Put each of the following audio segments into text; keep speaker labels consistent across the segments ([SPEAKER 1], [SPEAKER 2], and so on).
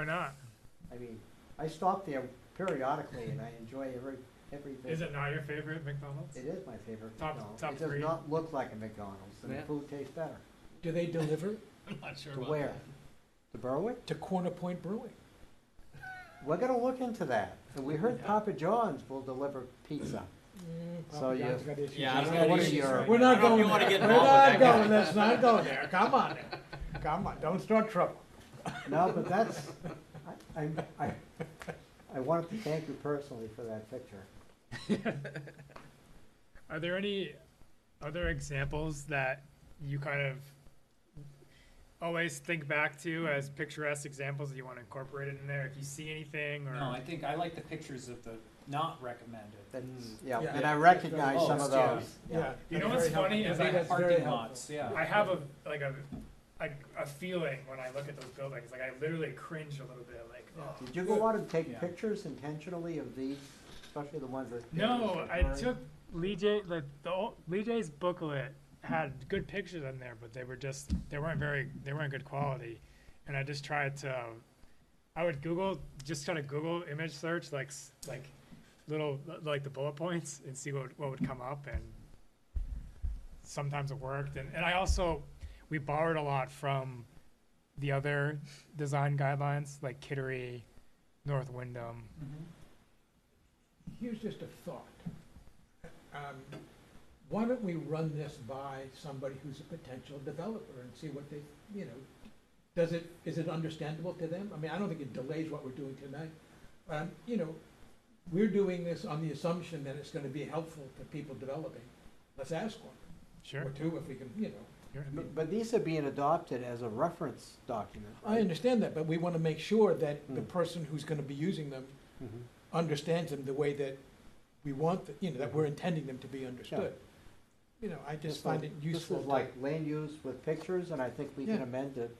[SPEAKER 1] Why not?
[SPEAKER 2] I mean, I stop there periodically and I enjoy every, every visit.
[SPEAKER 1] Is it not your favorite McDonald's?
[SPEAKER 2] It is my favorite
[SPEAKER 1] Top-
[SPEAKER 2] McDonald's.
[SPEAKER 1] top
[SPEAKER 2] It does
[SPEAKER 1] three.
[SPEAKER 2] not look like a McDonald's and the
[SPEAKER 3] Yeah.
[SPEAKER 2] food tastes better.
[SPEAKER 4] Do they deliver
[SPEAKER 3] I'm not sure
[SPEAKER 2] To
[SPEAKER 3] about
[SPEAKER 2] where?
[SPEAKER 3] that.
[SPEAKER 2] To Berwick?
[SPEAKER 4] to Corner Point Brewing?
[SPEAKER 2] We're gonna look into that. And we heard
[SPEAKER 3] Yeah.
[SPEAKER 2] Papa John's will deliver pizza.
[SPEAKER 4] Mm,
[SPEAKER 2] So
[SPEAKER 4] Papa
[SPEAKER 2] you-
[SPEAKER 4] John's got issues.
[SPEAKER 3] Yeah, I
[SPEAKER 2] He's
[SPEAKER 3] don't
[SPEAKER 2] got
[SPEAKER 3] know what
[SPEAKER 2] issues
[SPEAKER 3] it is.
[SPEAKER 2] right
[SPEAKER 4] We're not
[SPEAKER 3] I don't know if
[SPEAKER 4] going
[SPEAKER 3] you wanna
[SPEAKER 4] there.
[SPEAKER 3] get
[SPEAKER 4] We're
[SPEAKER 3] involved with
[SPEAKER 4] not
[SPEAKER 3] that guy.
[SPEAKER 4] going, let's not go there. Come on. Come on, don't start trouble.
[SPEAKER 2] No, but that's, I, I'm- I, I wanted to thank you personally for that picture.
[SPEAKER 1] Are there any other examples that you kind of always think back to as picturesque examples that you want to incorporate in there? If you see anything or
[SPEAKER 5] No, I think, I like the pictures of the not recommended.
[SPEAKER 2] That's,
[SPEAKER 5] Mm.
[SPEAKER 2] yeah,
[SPEAKER 4] Yeah.
[SPEAKER 2] and I recognize
[SPEAKER 5] Oh,
[SPEAKER 2] some of
[SPEAKER 5] yeah.
[SPEAKER 2] those.
[SPEAKER 4] Yeah.
[SPEAKER 1] You know
[SPEAKER 4] that's
[SPEAKER 1] what's
[SPEAKER 4] very helpful.
[SPEAKER 1] funny
[SPEAKER 4] I
[SPEAKER 1] is
[SPEAKER 4] think
[SPEAKER 1] I-
[SPEAKER 4] that's very
[SPEAKER 5] Parking
[SPEAKER 4] helpful.
[SPEAKER 5] lots, yeah.
[SPEAKER 1] I have a like a like a feeling when I look at those buildings. Like I literally cringe a little bit. Like oh.
[SPEAKER 2] Did you go out and take
[SPEAKER 5] Yeah.
[SPEAKER 2] pictures intentionally of these, especially the ones that?
[SPEAKER 1] no, I
[SPEAKER 2] Right.
[SPEAKER 1] took Lee J like the old, Lee J's booklet had good pictures on there, but they were just they weren't very they weren't good quality, and I just tried to. um, I would Google just kind of Google image search like s- like little like the bullet points and see what what would come up and sometimes it worked and, and I also we borrowed a lot from the other design guidelines like Kittery, North Windham.
[SPEAKER 5] Mhm.
[SPEAKER 4] Here's just a thought. Um, Why don't we run this by somebody who's a potential developer and see what they, you know, does it, is it understandable to them? I mean, I don't think it delays what we're doing tonight. Um, You know, we're doing this on the assumption that it's gonna be helpful to people developing. Let's ask one,
[SPEAKER 1] Sure.
[SPEAKER 4] or two, if we can, you know.
[SPEAKER 1] sure.
[SPEAKER 2] But- But these are being adopted as a reference document.
[SPEAKER 4] I
[SPEAKER 2] right?
[SPEAKER 4] understand that, but we want to make sure that the
[SPEAKER 2] Hmm.
[SPEAKER 4] person who's going to be using them
[SPEAKER 2] Mhm.
[SPEAKER 4] understands them the way that we want, the- you know, that we're intending them to be understood. You know, I just
[SPEAKER 2] Mm-hmm. This
[SPEAKER 4] find
[SPEAKER 2] is-
[SPEAKER 4] it useful.
[SPEAKER 2] This is
[SPEAKER 4] to-
[SPEAKER 2] like land use with pictures, and I think we can
[SPEAKER 4] Yeah.
[SPEAKER 2] amend it.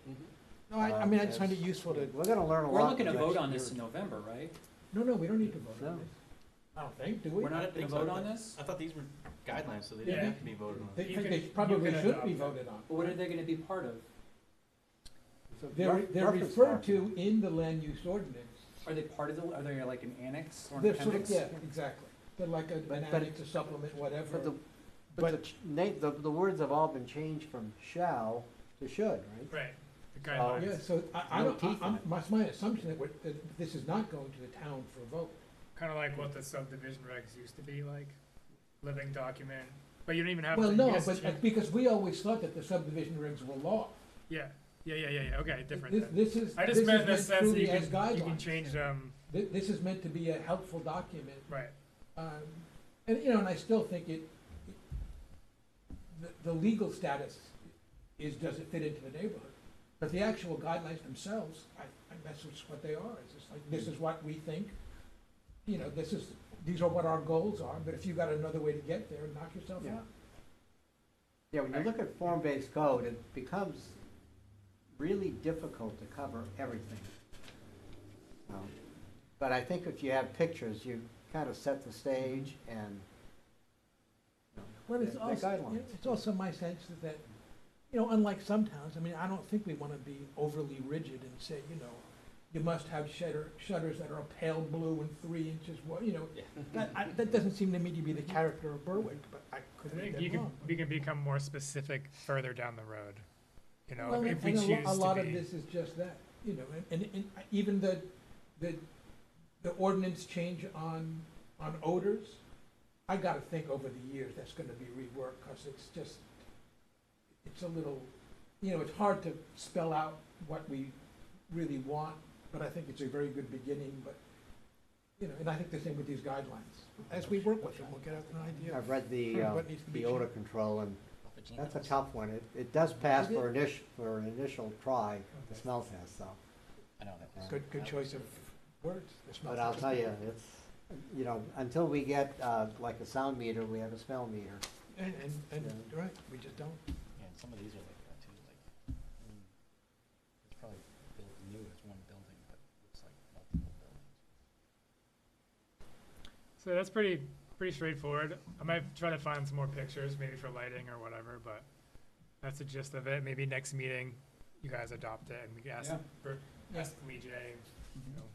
[SPEAKER 4] No, I, I
[SPEAKER 2] um,
[SPEAKER 4] mean, I just
[SPEAKER 2] as-
[SPEAKER 4] find it useful to,
[SPEAKER 2] We're gonna learn a lot.
[SPEAKER 5] We're looking
[SPEAKER 2] in
[SPEAKER 5] to
[SPEAKER 2] the
[SPEAKER 5] vote
[SPEAKER 2] next
[SPEAKER 5] on this in
[SPEAKER 2] year.
[SPEAKER 5] November, right?
[SPEAKER 4] no, no, we don't need to vote
[SPEAKER 2] No.
[SPEAKER 4] on this. I don't think, do we?
[SPEAKER 5] We're not gonna
[SPEAKER 3] think so.
[SPEAKER 5] vote on this?
[SPEAKER 3] I thought these were guidelines, so they
[SPEAKER 1] Yeah.
[SPEAKER 3] didn't have to be voted on.
[SPEAKER 4] They,
[SPEAKER 1] You
[SPEAKER 4] think
[SPEAKER 1] can-
[SPEAKER 4] they
[SPEAKER 1] you
[SPEAKER 4] probably
[SPEAKER 1] can
[SPEAKER 4] should
[SPEAKER 1] adopt
[SPEAKER 4] be
[SPEAKER 1] it.
[SPEAKER 4] voted on.
[SPEAKER 5] What are they gonna be part of?
[SPEAKER 2] It's a
[SPEAKER 4] They're,
[SPEAKER 2] re-
[SPEAKER 4] they're
[SPEAKER 2] reference
[SPEAKER 4] referred to
[SPEAKER 2] document.
[SPEAKER 4] in the land use ordinance.
[SPEAKER 5] Are they part of the, are they like an annex or an
[SPEAKER 4] They're sort
[SPEAKER 5] appendix?
[SPEAKER 4] of, yeah, exactly. They're like a-
[SPEAKER 2] But-
[SPEAKER 4] an
[SPEAKER 2] but-
[SPEAKER 4] annex to supplement whatever.
[SPEAKER 2] But the, but the, ch- na- the, the words have all been changed from shall to should, right?
[SPEAKER 1] Right. The
[SPEAKER 2] Oh,
[SPEAKER 1] guidelines.
[SPEAKER 4] Yeah, so I, I
[SPEAKER 2] No
[SPEAKER 4] don't, I-
[SPEAKER 2] teeth in
[SPEAKER 4] I'm,
[SPEAKER 2] it.
[SPEAKER 4] my, my assumption that we're, that this is not going to the town for a vote.
[SPEAKER 1] Kind of like what the subdivision regs used to be like, living document, but you don't even have to.
[SPEAKER 4] Well,
[SPEAKER 1] you
[SPEAKER 4] no,
[SPEAKER 1] just-
[SPEAKER 4] but, uh, because we always thought that the subdivision regs were law.
[SPEAKER 1] Yeah, yeah, yeah, yeah, yeah, okay, different
[SPEAKER 4] This,
[SPEAKER 1] then.
[SPEAKER 4] this is,
[SPEAKER 1] I
[SPEAKER 4] this
[SPEAKER 1] just
[SPEAKER 4] is
[SPEAKER 1] meant in the
[SPEAKER 4] meant
[SPEAKER 1] sense that you
[SPEAKER 4] truly as
[SPEAKER 1] can, you can
[SPEAKER 4] guidelines.
[SPEAKER 1] change them,
[SPEAKER 4] Thi- This is meant to be a helpful document,
[SPEAKER 1] right,
[SPEAKER 4] um, and, you know, and I still think it, the, the legal status is, does it fit into the neighborhood? But the actual guidelines themselves, I, I, that's just what they are, it's just like, this is what we think, you know, this is, these are what our goals are, but if you got another way to get there, knock yourself
[SPEAKER 2] Yeah.
[SPEAKER 4] out.
[SPEAKER 2] Yeah, when you look at form-based code, it becomes really difficult to cover everything. Um, But I think if you have pictures, you kind of set the stage and, you know,
[SPEAKER 4] Well, it's
[SPEAKER 2] the- the
[SPEAKER 4] also,
[SPEAKER 2] guidelines.
[SPEAKER 4] it's also my sense that- that, you know, unlike some towns, I mean, I don't think we want to be overly rigid and say, you know, you must have shutter, shutters that are pale blue and three inches wide, you know.
[SPEAKER 3] Yeah.
[SPEAKER 4] That, I, that doesn't seem to me to be the character of Berwick, but I
[SPEAKER 1] I
[SPEAKER 4] could be
[SPEAKER 1] think
[SPEAKER 4] dead
[SPEAKER 1] you can,
[SPEAKER 4] wrong.
[SPEAKER 1] you can become more specific further down the road, you know,
[SPEAKER 4] Well,
[SPEAKER 1] if we
[SPEAKER 4] and a
[SPEAKER 1] choose
[SPEAKER 4] lo-
[SPEAKER 1] to be.
[SPEAKER 4] A lot of this is just that, you know, and, and, and even the, the, the ordinance change on, on odors, I gotta think over the years, that's gonna be reworked, cause it's just, it's a little, you know, it's hard to spell out what we really want, but I think it's a very good beginning, but, you know, and I think the same with these guidelines. As we work with them, we'll get an idea.
[SPEAKER 2] I've read the, uh,
[SPEAKER 4] What needs to be
[SPEAKER 2] the odor
[SPEAKER 4] changed.
[SPEAKER 2] control, and that's a tough one. It, it does pass
[SPEAKER 4] Is it?
[SPEAKER 2] for initial, for an initial try, the smell test, though.
[SPEAKER 3] I know that was.
[SPEAKER 4] Good, good choice of words. It's not-
[SPEAKER 2] But I'll tell you, it's, you know, until we get, uh, like a sound meter, we have a smell meter.
[SPEAKER 4] And, and, and,
[SPEAKER 2] Yeah.
[SPEAKER 4] right, we just don't.
[SPEAKER 3] Yeah, and some of these are like that too, like, I mean, it's probably built new as one building, but it's like multiple buildings.
[SPEAKER 1] So that's pretty, pretty straightforward. I might try to find some more pictures, maybe for lighting or whatever, but that's the gist of it. Maybe next meeting, you guys adopt it and we can ask
[SPEAKER 5] Yeah.
[SPEAKER 1] for
[SPEAKER 4] Yeah.
[SPEAKER 1] Lee J,